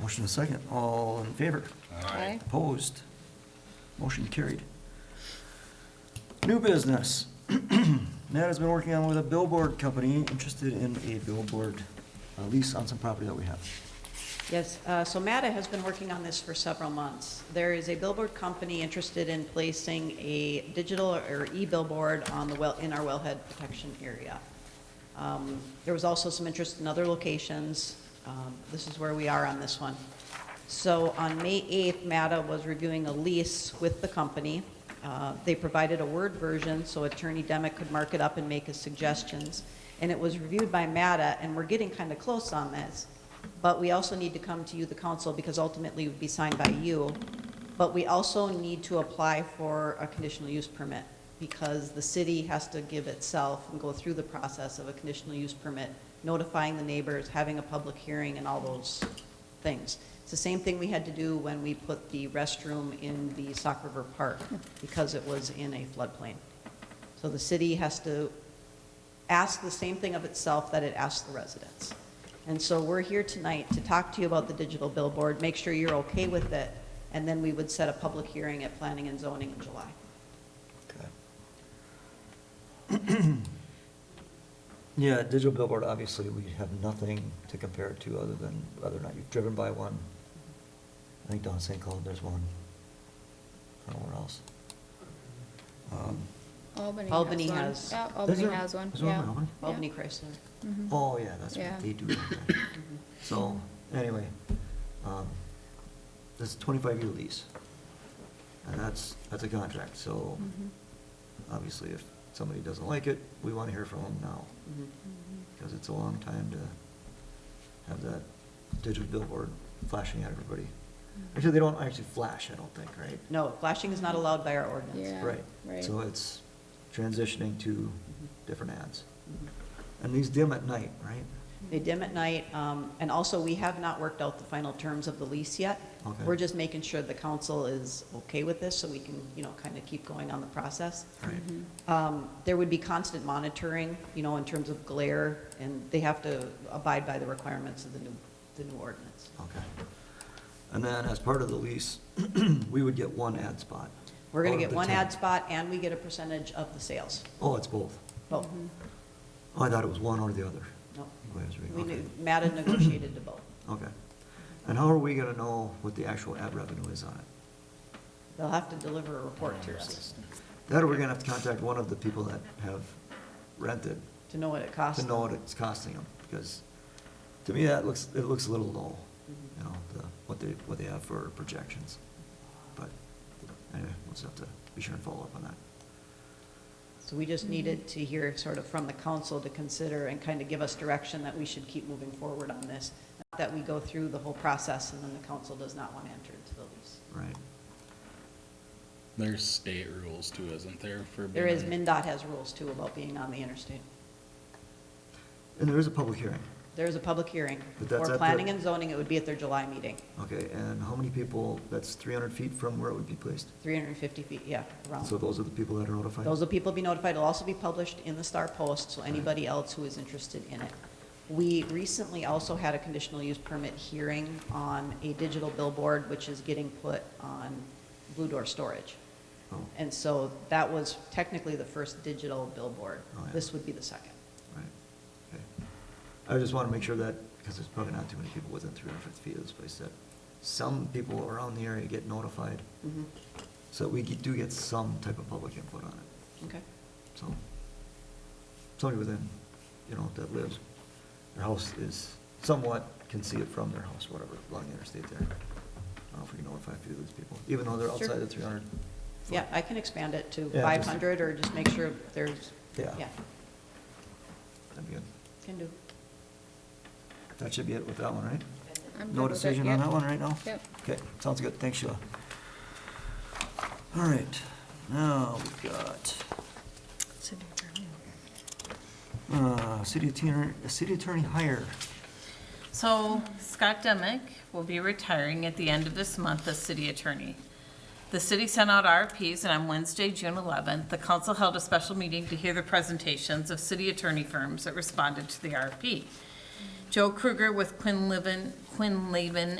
Motion and second, all in favor? Aye. Opposed? Motion carried. New business. Matt has been working on with a billboard company interested in a billboard uh, lease on some property that we have. Yes, uh, so MATA has been working on this for several months. There is a billboard company interested in placing a digital or e-billboard on the well, in our wellhead protection area. Um, There was also some interest in other locations. Um, This is where we are on this one. So on May 8th, MATA was reviewing a lease with the company. Uh, They provided a Word version so Attorney Demick could mark it up and make his suggestions. And it was reviewed by MATA, and we're getting kind of close on this. But we also need to come to you, the council, because ultimately it would be signed by you. But we also need to apply for a conditional use permit because the city has to give itself and go through the process of a conditional use permit, notifying the neighbors, having a public hearing and all those things. It's the same thing we had to do when we put the restroom in the Sock River Park because it was in a floodplain. So the city has to ask the same thing of itself that it asked the residents. And so we're here tonight to talk to you about the digital billboard, make sure you're okay with it, and then we would set a public hearing at Planning and Zoning in July. Yeah, digital billboard, obviously, we have nothing to compare it to other than whether or not you've driven by one. I think down in St. Cloud, there's one. I don't know where else. Um, Albany has one. Albany has- Yeah, Albany there- has one, is there one in yeah. Albany? Yeah. Albany Chrysler. Mhm. Oh, yeah, that's Yeah. what they do. okay. So, anyway, um, this is twenty-five year lease. And that's, that's a contract, so Mhm. obviously if somebody doesn't like it, we wanna hear from them now. Mhm. Mm-hmm. Because it's a long time to have that digital billboard flashing at everybody. Actually, they don't actually flash, I don't think, right? Mm-hmm. No, flashing is not allowed by our ordinance. Yeah, Right, right. so it's transitioning to Mm-hmm. different ads. Mhm. And these dim at night, right? They dim at night, um, and also, we have not worked out the final terms of the lease yet. Okay. We're just making sure the council is okay with this, so we can, you know, kind of keep going on the process. Right. Um, There would be constant monitoring, you know, in terms of glare, and they have to abide by the requirements of the new, the new ordinance. Okay. And then as part of the lease, we would get one ad spot. We're going out to of get the one 10. ad spot, and we get a percentage of the sales. Oh, it's both. Both. Oh, I thought it was one or the other. No. Wait, I was reading- We okay. knew, Mm-hmm. Matt had negotiated to both. Okay. And how are we gonna know what the actual ad revenue is on it? They'll have to deliver a report to us That or we're gonna have to contact one of the people that have rented to know what it costs. to know what it's costing them, because to me, that looks, it looks a little low, you know, the, what they, what they have for projections. But anyway, we'll just have to be sure and follow up on that. So we just needed to hear sort of from the council to consider and kind of give us direction that we should keep moving forward on this, not that we go through the whole process and then the council does not want to enter into the lease. Right. There's state rules too, isn't there, for? There is, being- MinDOT has rules too about being on the interstate. And there is a public hearing. There is a public hearing But that's at for the- planning and zoning, it would be at their July meeting, Okay, and how many people, that's 300 feet from where it would be placed? 350 feet, yeah, around. So those are the people that are notified? Those will people be notified, it'll also be published in the Star Post, so anybody else who is interested in it. We recently also had a conditional use permit hearing on a digital billboard, which is getting put on Blue Door Storage. Oh, And so that was technically the first digital billboard. Oh, yeah. This would be the second. right, okay. I just want to make sure that, because there's probably not too many people within 350 feet of this place, that some people around the area get notified, Mhm. so we get- do get some type of public input on it, Okay, so. Somebody within, you know, that lives, their house is somewhat, can see it from their house, whatever, along the interstate there. I don't know if we can notify a few of these people, even though they're Sure. outside the 300. foot. yeah, I can expand it to Yeah, just- 500 or just make sure there's, Yeah. yeah, That'd be good. can do. That should be it with that one, right? I'm good No with it, decision on yep. that one right now? Yep. Okay, sounds good, thanks Sheila. All right, now we've got, uh, city attorney, city attorney hire. So Scott Demick will be retiring at the end of this month as city attorney. The city sent out RFPs, and on Wednesday, June 11th, the council held a special meeting to hear the presentations of city attorney firms that responded to the RFP. Joe Kruger with Quinn Livin, Quinn Laban